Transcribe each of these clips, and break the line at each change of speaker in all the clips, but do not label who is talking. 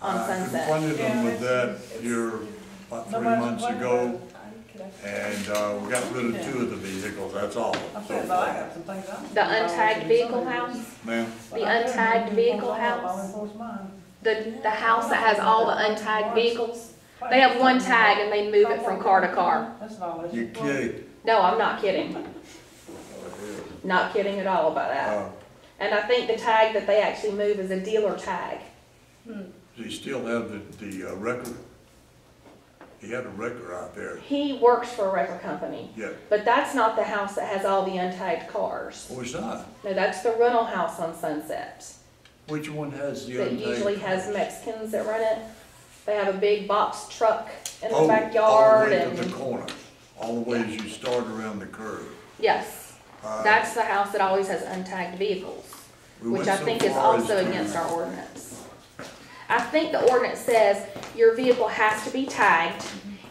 on
Uh, I
Sunset.
confronted them with that here about three months ago, and, uh, we got rid of two of the vehicles, that's all.
Okay,
So
but I
far,
got some things I.
The untagged vehicle house,
Ma'am,
the untagged vehicle house, the, the house that has all the untagged vehicles. They have one tag and they move it from car to car.
That's not all.
you kidding?
No, I'm not kidding. Not kidding at all about that.
Uh,
And I think the tag that they actually move is a dealer tag.
Do you still have the, the uh, record? He had a record out there,
He works for a record company,
yeah,
but that's not the house that has all the untagged cars.
oh, it's not,
No, that's the rental house on Sunset
which one has the
that
untagged?
usually has Mexicans that rent it. They have a big box truck in
Oh, all
the backyard
the way to the
and,
corner, all the way as you start around the curve.
yes.
Uh,
That's the house that always has untagged vehicles,
we
which
went
I
so
think is
far as
also
to-
against our ordinance. I think the ordinance says your vehicle has to be tagged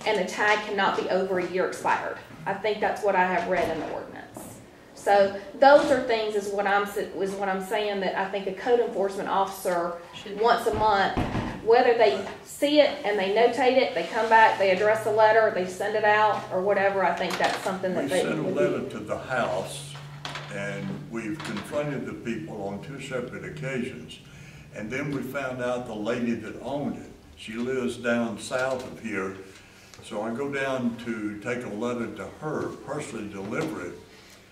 and the tag cannot be over a year expired. I think that's what I have read in the ordinance. So those are things is what I'm, s- is what I'm saying that I think a code enforcement officer, once a month, whether they see it and they notate it, they come back, they address the letter, they send it out or whatever, I think that's something that
We
they
sent a
would
letter
be.
to the House, and we've confronted the people on two separate occasions. And then we found out the lady that owned it, she lives down south of here. So I go down to take a letter to her, personally deliver it.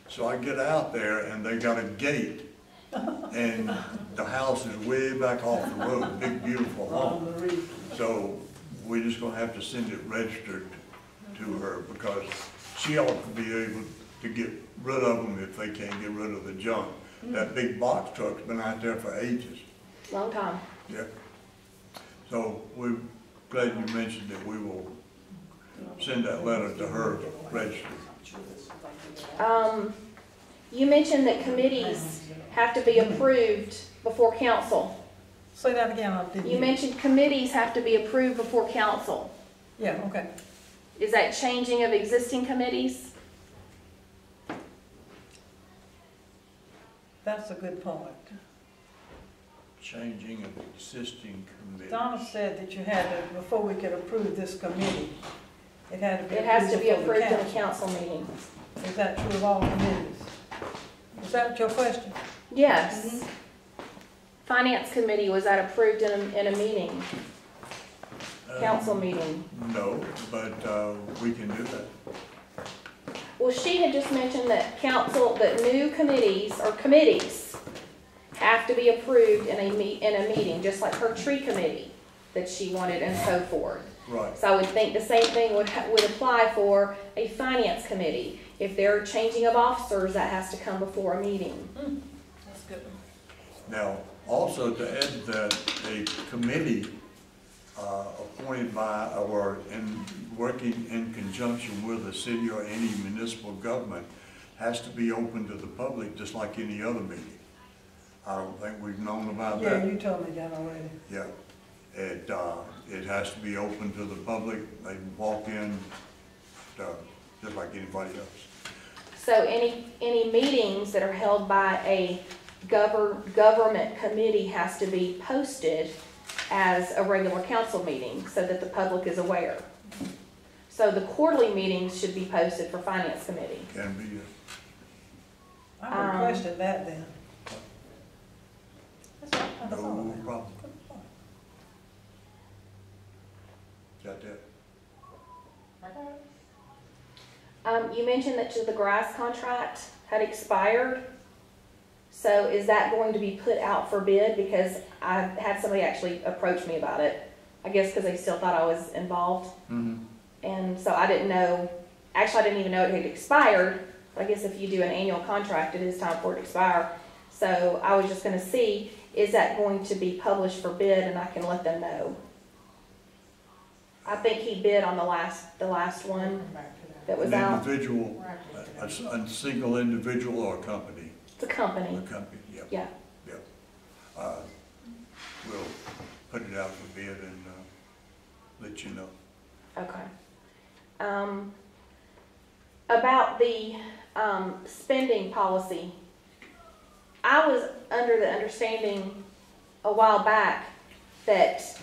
So I get out there, and they got a gate, and the house is way back off the road, big beautiful home.
On the roof.
So we're just gonna have to send it registered to her because she ought to be able to get rid of them if they can't get rid of the junk. That big box truck's been out there for ages,
Long time.
yeah. So we're glad you mentioned that we will send that letter to her registered.
Um, you mentioned that committees have to be approved before council.
Say that again, I didn't.
You
hear.
mentioned committees have to be approved before council.
Yeah, okay.
Is that changing of existing committees?
That's a good point.
Changing of existing committee.
Donna said that you had to, before we could approve this committee, it had to be.
It has to be
before the
approved in a
council.
council meeting.
Is that true of all committees? Is that your question?
Yes. Finance committee, was that approved in a, in a meeting,
Uh,
council meeting?
No, but, uh, we can do that.
Well, she had just mentioned that council, that new committees or committees have to be approved in a meet, in a meeting, just like her tree committee that she wanted and so forth.
Right.
So I would think the same thing would, ha- would apply for a finance committee. If they're changing of officers, that has to come before a meeting.
That's good.
Now, also to add that a committee uh, appointed by or in, working in conjunction with a city or any municipal government has to be open to the public, just like any other meeting. I don't think we've known about
Yeah,
that.
you told me that already.
Yeah. It, uh, it has to be open to the public. They can walk in, uh, just like anybody else.
So any, any meetings that are held by a govern, government committee has to be posted as a regular council meeting so that the public is aware. So the quarterly meetings should be posted for finance committee.
Can be, uh,
I would
Um,
question that then. That's all, that's all.
No problem. Got that?
Um, you mentioned that the grass contract had expired. So is that going to be put out for bid? Because I had somebody actually approach me about it. I guess because they still thought I was involved.
Mm-hmm.
And so I didn't know, actually, I didn't even know it had expired. I guess if you do an annual contract, it is time for it to expire. So I was just gonna see, is that going to be published for bid and I can let them know? I think he bid on the last, the last one that was
An
out.
individual, a, a single individual or a company,
It's a
a
company,
company, yep.
yeah.
Yep. Uh, We'll put it out for bid and, uh, let you know.
Okay. Um, about the, um, spending policy, I was under the understanding a while back that